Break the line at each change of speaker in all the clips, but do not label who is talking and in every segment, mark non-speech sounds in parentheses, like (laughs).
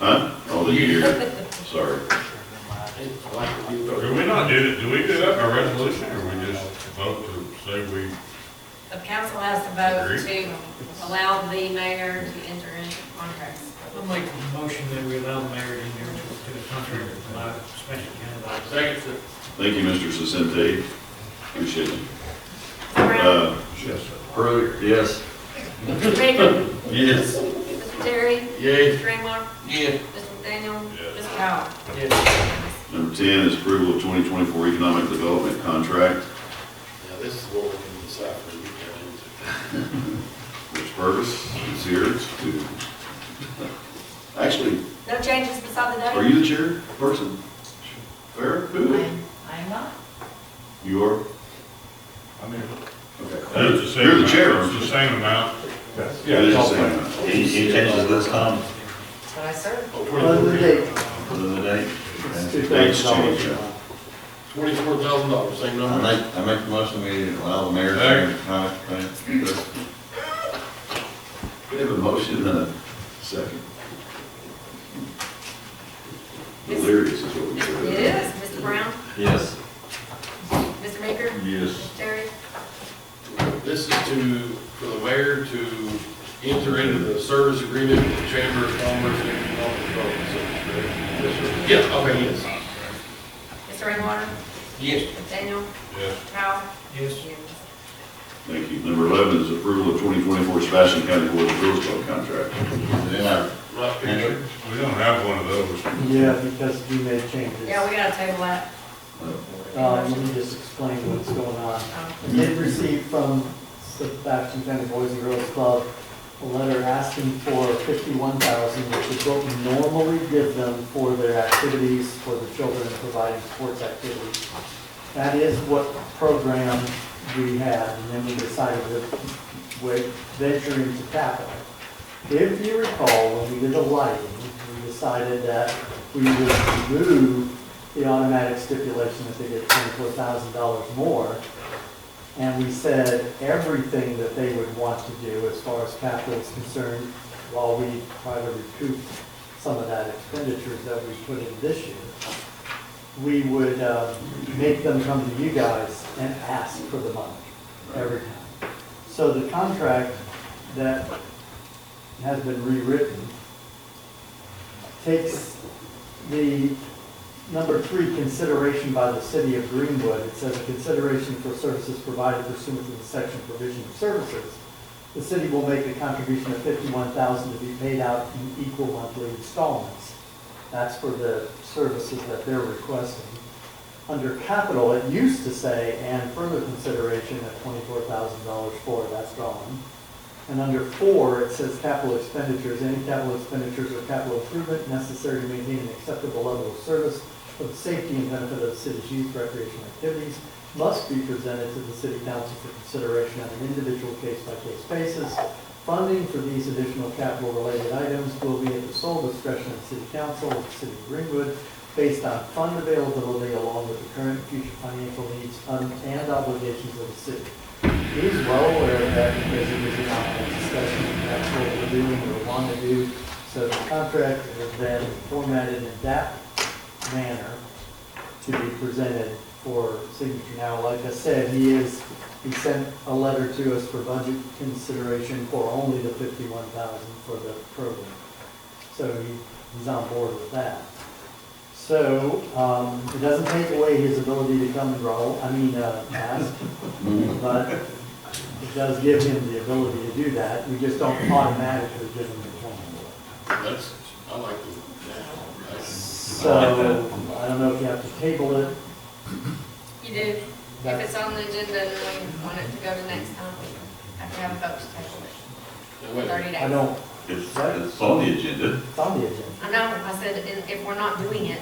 Huh? Oh, the year, sorry.
Do we not do, that- do we do that by resolution, or we just vote to say we,
The council has to vote to allow the mayor to enter into contracts.
I'll make a motion that we allow the mayor to enter to the contract by special candidate.
Second, sir.
Thank you, Mr. Sisente. Appreciate it.
Brown,
Uh, Hurley, yes.
Mr. Baker,
Yes.
Mr. Terry,
Yay.
Mr. Raymar,
Yeah.
Mr. Daniel,
Yes.
Mr. Powell.
Yeah,
Number 10 is approval of 2024 economic development contract.
Now, this is what we can decide for the weekend.
(laughs) Which purpose is here to, actually,
No changes beside the
are
date?
you the chair person? Fair? Who?
I am not.
You are?
I mean,
Okay.
that's the same?
You're the
amount-
chair.
It's the same amount,
that's,
Yeah,
yeah,
it is
it's
the
all
same.
fine.
Any, any changes to this, Tom?
But I serve.
Other than that,
Other than that,
it's
okay.
two thousand dollars.
Twenty-four thousand dollars, same
I
number.
make, I make the motion, we allow the mayor to, uh, uh,
We have a motion and a second. Delirious is what we do.
It is, Mr. Brown,
yes.
Mr. Baker,
Yes.
Mr. Terry,
This is to, for the mayor to enter into the service agreement with the Chamber of Commerce and Economic Development. Yes, Yeah, okay, yes.
Mr. Raymar,
yes,
Mr. Daniel,
yes.
Mr. Powell.
Yes,
Thank you. Number 11 is approval of 2024 Sebastian County Board of Girls Club contract.
Then I,
Not picture.
We don't have one of those.
Yeah, because we made changes.
Yeah, we gotta table that.
Um, let me just explain what's going on.
Um,
They've received from Sebastian County Boys and Girls Club a letter asking for fifty-one thousand, which is what we normally give them for their activities for the children and providing sports activities. That is what program we had, and then we decided to wa- venture into capital. If you recall, when we did the lighting, we decided that we would remove the automatic stipulation that they get twenty-four thousand dollars more. And we said everything that they would want to do as far as capital is concerned, while we try to recoup some of that expenditures that we put in this year. We would uh, make them come to you guys and ask for the money every time. So the contract that has been rewritten takes the Number three, consideration by the city of Greenwood. It says, "Consideration for services provided pursuant to the section provision of services. The city will make a contribution of fifty-one thousand to be paid out in equal monthly installments." That's for the services that they're requesting. Under capital, it used to say, "And further consideration of twenty-four thousand dollars for," that's gone. And under four, it says capital expenditures, any capital expenditures or capital improvement necessary to maintain an acceptable level of service for the safety and benefit of the city's youth recreational activities must be presented to the city council for consideration on an individual case-by-case basis. Funding for these additional capital-related items will be at the sole discretion of the city council of the city of Greenwood based on fund availability along with the current and future financial needs um, and obligations of the city. He's well aware of that because it was an ongoing discussion, and that's what we're doing, we want to do. So the contract has been formatted in that manner to be presented for signature. Now, like I said, he is, he sent a letter to us for budget consideration for only the fifty-one thousand for the program. So he, he's on board with that. So, um, it doesn't take away his ability to come and roll, I mean, uh, ask but it does give him the ability to do that. We just don't automatically give him the twenty-four.
That's, I like the, that's-
So, I don't know if you have to table it.
You do. If
That's-
it's on the agenda and we want it to go to next time, I have to have a vote to table it
now,
for
wait a minute.
thirty days.
I don't,
it's, it's on the agenda.
it's on the agenda.
I know, I said, and if we're not doing it,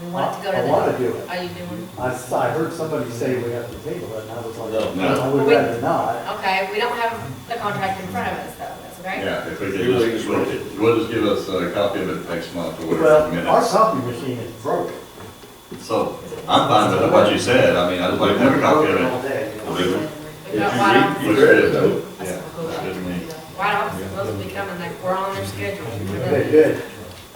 we want it to go to
I- I
the.
wanna do it.
Are you doing?
I, s- I heard somebody say we have to table it, and I was like,
No.
I would
We-
rather not.
Okay, we don't have the contract in front of us though, that's okay?
Yeah, if we could just, we'll- we'll just give us a copy of it next month or whatever,
Well, our
minutes.
copy machine is broken.
So, I'm fine with what you said, I mean, I'd like to have a copy of
All
it.
day.
We've got White Office,
Looks good, though.
that's
Yeah,
cool.
good to me.
White Office is supposed to be coming, like, we're on their schedule.
Okay, good.